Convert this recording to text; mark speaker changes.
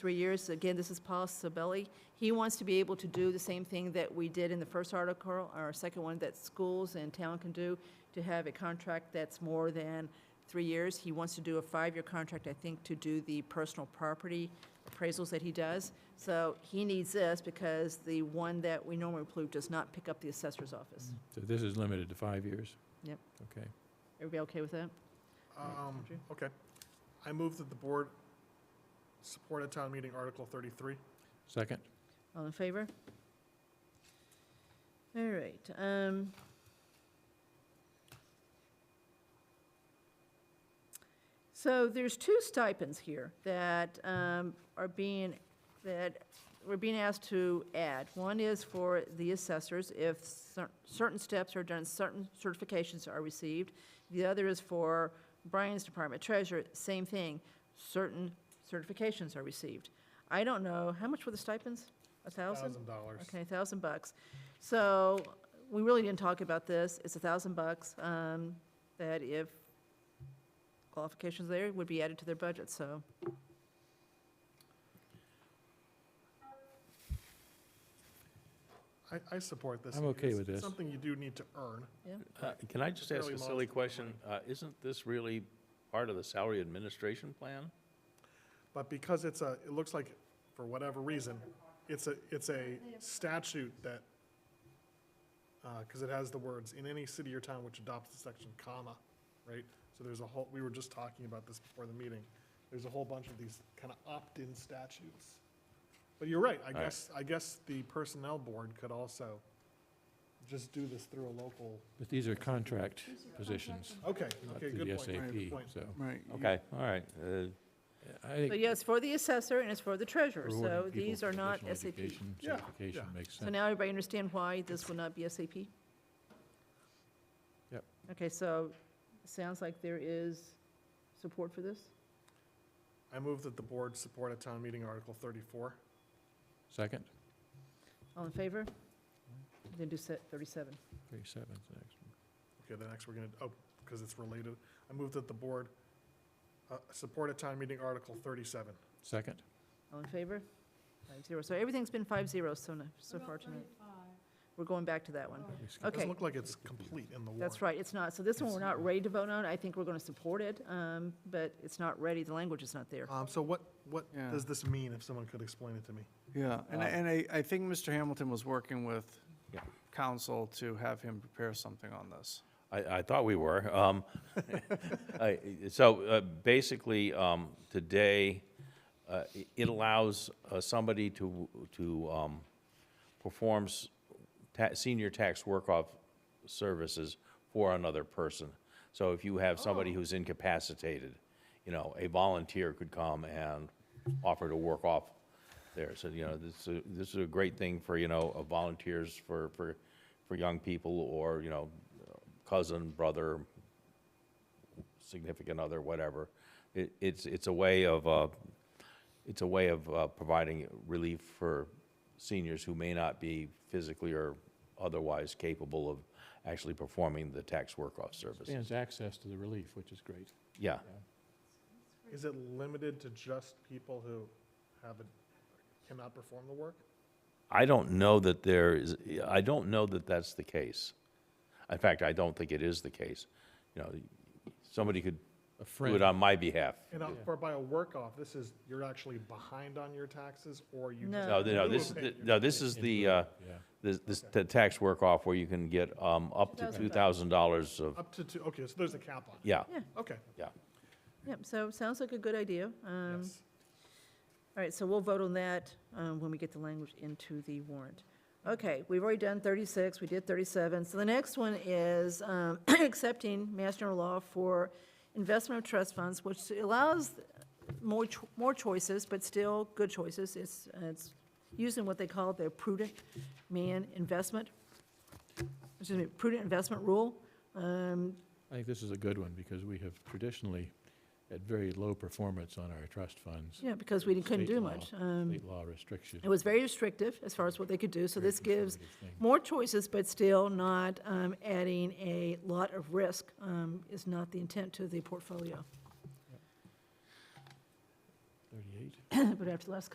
Speaker 1: three years. Again, this is Paul Sabelli. He wants to be able to do the same thing that we did in the first article, our second one, that schools and town can do, to have a contract that's more than three years. He wants to do a five-year contract, I think, to do the personal property appraisals that he does. So he needs this because the one that we normally approve does not pick up the assessor's office.
Speaker 2: So this is limited to five years?
Speaker 1: Yep.
Speaker 2: Okay.
Speaker 1: Everybody okay with that?
Speaker 3: Um,
Speaker 1: Andrew?
Speaker 3: okay. I move that the board support at town meeting Article thirty-three.
Speaker 2: Second?
Speaker 1: All in favor? All right, um. So there's two stipends here that, um, are being, that we're being asked to add. One is for the assessors, if cer- certain steps are done, certain certifications are received. The other is for Brian's department treasurer, same thing, certain certifications are received. I don't know, how much were the stipends? A thousand?
Speaker 3: Thousand dollars.
Speaker 1: Okay, thousand bucks. So, we really didn't talk about this, it's a thousand bucks, um, that if qualifications there would be added to their budget, so.
Speaker 3: I, I support this.
Speaker 2: I'm okay
Speaker 3: It's-
Speaker 2: with
Speaker 3: it's
Speaker 2: this.
Speaker 3: Something you do need to earn.
Speaker 4: Uh, Can I just ask
Speaker 3: Fairly
Speaker 4: a
Speaker 3: modest
Speaker 4: silly
Speaker 3: amount of
Speaker 4: question? Uh, Isn't this really part of the salary administration plan?
Speaker 3: But because it's a, it looks like, for whatever reason, it's a, it's a statute that, because it has the words, "in any city or town which adopts this section, comma," right? So there's a whole, we were just talking about this before the meeting. There's a whole bunch of these kind of opt-in statutes. But you're right, I
Speaker 4: right.
Speaker 3: guess, I guess the personnel board could also just do this through a local,
Speaker 2: But these are contract positions,
Speaker 3: okay,
Speaker 2: not
Speaker 3: okay,
Speaker 2: through
Speaker 3: good
Speaker 2: the
Speaker 3: point, good
Speaker 2: SAP,
Speaker 3: point.
Speaker 2: so.
Speaker 5: Right. you-
Speaker 4: Okay, all right. uh,
Speaker 2: I think
Speaker 1: So yeah, it's for the assessor and it's for the treasurer, so
Speaker 2: rewarding people
Speaker 1: these
Speaker 2: for
Speaker 1: are not
Speaker 2: additional
Speaker 1: SAP.
Speaker 2: education
Speaker 3: Yeah,
Speaker 2: Certification
Speaker 3: yeah.
Speaker 2: makes
Speaker 1: So
Speaker 2: sense.
Speaker 1: now everybody understand why this will not be SAP?
Speaker 2: Yep.
Speaker 1: Okay, so, sounds like there is support for this?
Speaker 3: I move that the board support a town meeting Article 34.
Speaker 2: Second?
Speaker 1: All in favor? Then do se- thirty-seven.
Speaker 2: Thirty-seven's next.
Speaker 3: Okay, the next we're gonna, oh, because it's related. I move that the board uh, support a town meeting Article 37.
Speaker 2: Second?
Speaker 1: All in favor? Five zero. So everything's been five zero so, n- so far tonight. We're going back to that one.
Speaker 2: We skipped
Speaker 3: Doesn't
Speaker 1: Okay.
Speaker 3: look like it's complete in the warrant.
Speaker 1: That's right, it's not. So this one, we're
Speaker 3: It's-
Speaker 1: not ready to vote on. I think we're going to support it, um, but it's not ready. The language is not there.
Speaker 3: Um, So what, what
Speaker 5: Yeah.
Speaker 3: does this mean, if someone could explain it to me?
Speaker 5: Yeah, and I, and I, I think Mr. Hamilton was working with
Speaker 4: Um, Yeah.
Speaker 5: council to have him prepare something on this.
Speaker 4: I, I thought we were. um, I- So uh, basically, um, today, uh, i- it allows uh, somebody to, to um, performs ta- senior tax work-off services for another person. So if you have somebody who's incapacitated, you know, a volunteer could come and offer to work off there. So, you know, this, is- this is a great thing for, you know, uh, volunteers for, for, for young people or, you know, cousin, brother, significant other, whatever. It, it's, it's a way of, uh, it's a way of uh, providing relief for seniors who may not be physically or otherwise capable of actually performing the tax work-off service.
Speaker 2: Expands access to the relief, which is great.
Speaker 4: Yeah,
Speaker 3: Is it limited to just people who have, a- cannot perform the work?
Speaker 4: I don't know that there is, I don't know that that's the case. In fact, I don't think it is the case. You know, somebody could do
Speaker 2: A
Speaker 4: it
Speaker 2: friend,
Speaker 4: on my behalf.
Speaker 3: And uh, for by a work-off, this is, you're actually behind on your taxes, or you just...
Speaker 1: No.
Speaker 4: No, th- no, this,
Speaker 3: Okay.
Speaker 4: no, this is the, uh,
Speaker 2: yeah.
Speaker 4: this, this, the tax work-off where you can get, um, up to two thousand dollars of,
Speaker 3: Up to two, okay, so there's a cap on it.
Speaker 4: yeah,
Speaker 3: Okay,
Speaker 4: yeah.
Speaker 1: Yep, so it sounds like a good idea. Um,
Speaker 3: yes.
Speaker 1: All right, so we'll vote on that um, when we get the language into the warrant. Okay, we've already done 36, we did 37. So the next one is um, accepting Mass General Law for investment of trust funds, which allows more, cho- more choices, but still good choices. It's, it's using what they call the prudent man investment, excuse me, prudent investment rule. Um,
Speaker 2: I think this is a good one because we have traditionally had very low performance on our trust funds.
Speaker 1: Yeah, because we couldn't
Speaker 2: State
Speaker 1: do
Speaker 2: law.
Speaker 1: much. Um,
Speaker 2: State law restrictions.
Speaker 1: It was very restrictive as far as what they could do, so
Speaker 2: very
Speaker 1: this gives
Speaker 2: conservative thing.
Speaker 1: more choices, but still not um, adding a lot of risk um, is not the intent to the portfolio.
Speaker 2: Thirty-eight?
Speaker 1: But after the last